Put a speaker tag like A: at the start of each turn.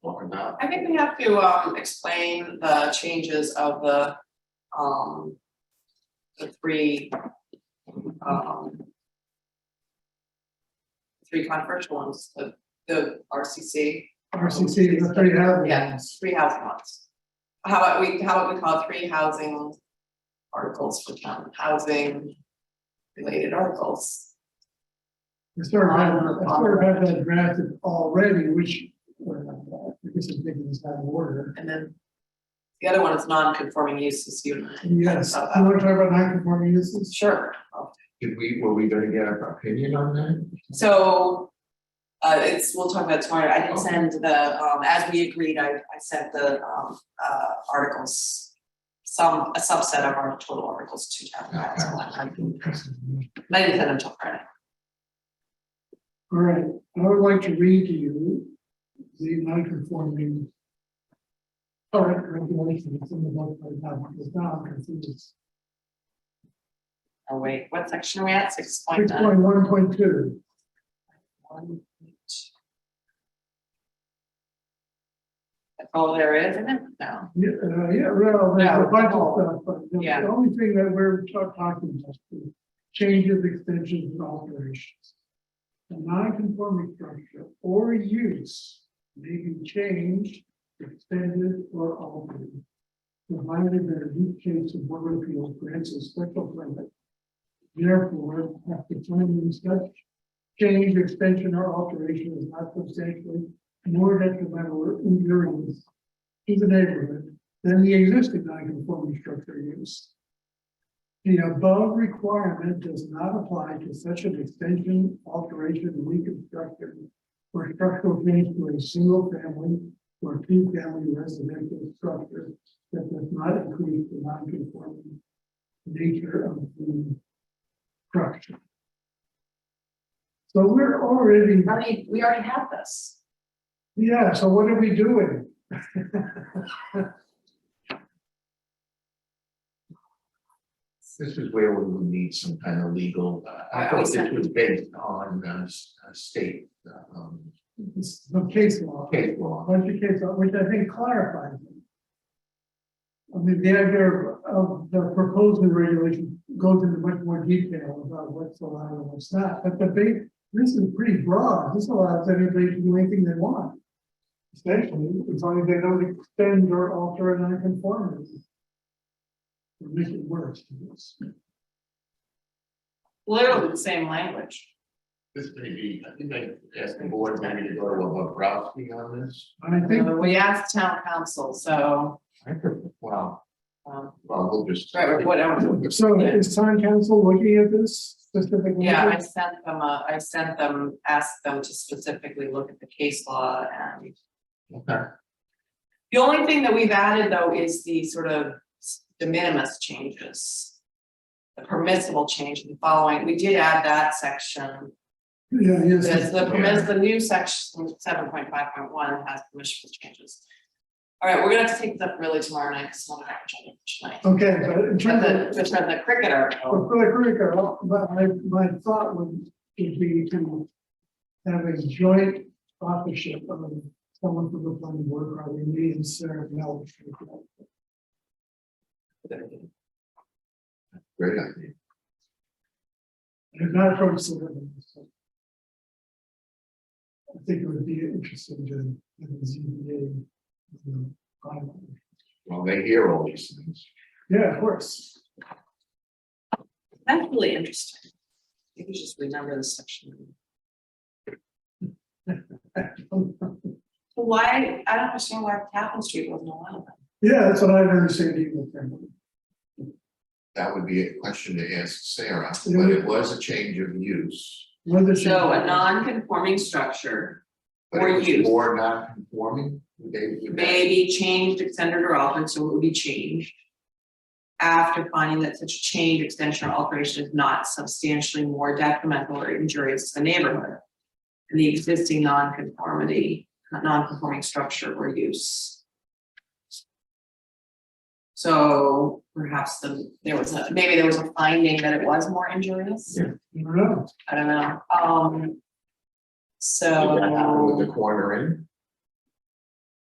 A: know, I think we have to um explain the changes of the um. The three um. Three controversial ones, the the RCC,
B: RCC, the three housing.
A: yes, three housing ones. How about we, how about we call it three housing articles for town, housing related articles?
B: The third had, the third had that drafted already, which, well, this is maybe it's not in order.
A: And then the other one is non-conforming uses, you and I.
B: Yes, you want to talk about non-conforming uses?
A: Sure,
C: Did we, were we gonna get our opinion on that?
A: So. Uh, it's, we'll talk about it tomorrow, I didn't send the, um, as we agreed, I, I sent the, um, uh, articles. Some, a subset of our total articles to town council, and I didn't send them till Friday.
B: All right, I would like to read to you the non-conforming. Current regulation that's in the book right now, because now I'm confused.
A: Oh, wait, what section are we at, six point
B: Six
A: nine?
B: point one point two.
A: One point two. That's all there is, isn't it? No,
B: Yeah, uh, yeah, well, there's
A: Yeah.
B: a bunch of stuff, but the-
A: Yeah.
B: the only thing that we're ta- talking about is changes, extensions, and alterations. A non-conforming structure or use may be changed, extended, or altered. Provided that a new case of board of appeals grants a special permit. Therefore, after finding such change, extension, or alteration is not substantially more detrimental or injurious to the neighborhood than the existing non-conforming structure use. The above requirement does not apply to such an extension, alteration, reconstruction, or structural change to a single family or two family residential structure that does not increase the non-conforming nature of the structure. So we're already,
A: How many- we already have this.
B: yeah, so what are we doing?
C: This is where we would need some kind of legal, uh, I thought this was based on uh, s- uh, state uh, um,
B: It's the case law.
C: case law.
B: bunch of cases, which I think clarifies it. I mean, the idea of- of the proposed new regulation goes into much more detail about what's allowed and what's not, but the big, this is pretty broad, this allows anybody to do anything they want. Especially as long as they don't extend or alter a nonconformity. Or make it worse.
A: Literally the same language.
C: This may be, I think I asked the board maybe to go to a Bobrowski on this.
B: And I think,
A: Uh, We asked town council, so,
C: I could- Wow,
A: um,
C: well, we'll just.
A: right, whatever.
B: so is town council looking at this specifically?
A: Yeah, I sent them, a- I sent them, asked them to specifically look at the case law and
C: Okay.
A: the only thing that we've added though is the sort of s- de minimis changes. The permissible change in the following, we did add that section,
B: Yeah, yes.
A: because the permits, the new section, seven point five point one has permissible changes. All right, we're gonna have to take this up really tomorrow night, because we'll have to tonight.
B: Okay, but in terms of.
A: But the, but the oh, cricket
B: Well,
A: article,
B: for the Greek, uh, but my, my thought would, would be to have a joint authorship of someone from the planning board, probably me and Sarah Mel.
C: Great idea.
B: And not from Sullivan. so. I think it would be interesting to, have the ZBA. you know, bylaw.
C: Well, they hear all these things.
B: Yeah, of course.
A: that's really interesting. You can just remember this section. But Why, I don't understand why Captain Street wasn't allowed then.
B: Yeah, that's what I've never seen either. frankly.
C: That would be a question to ask Sarah, but it was a change of use.
B: Whether she-
A: So a non-conforming structure
C: But
A: Or
C: it was
A: use.
C: more non-conforming, they, would that-
A: may be changed, extended or altered, so it would be changed. After finding that such change, extension or alteration is not substantially more detrimental or injurious to the neighborhood. than The existing non-conformity, non-conforming structure or use. So perhaps the, there was a, maybe there was a finding that it was more injurious.
C: Yeah.
B: I don't know.
A: I don't know, um.
C: Did that happen with
A: So,
C: the corner in?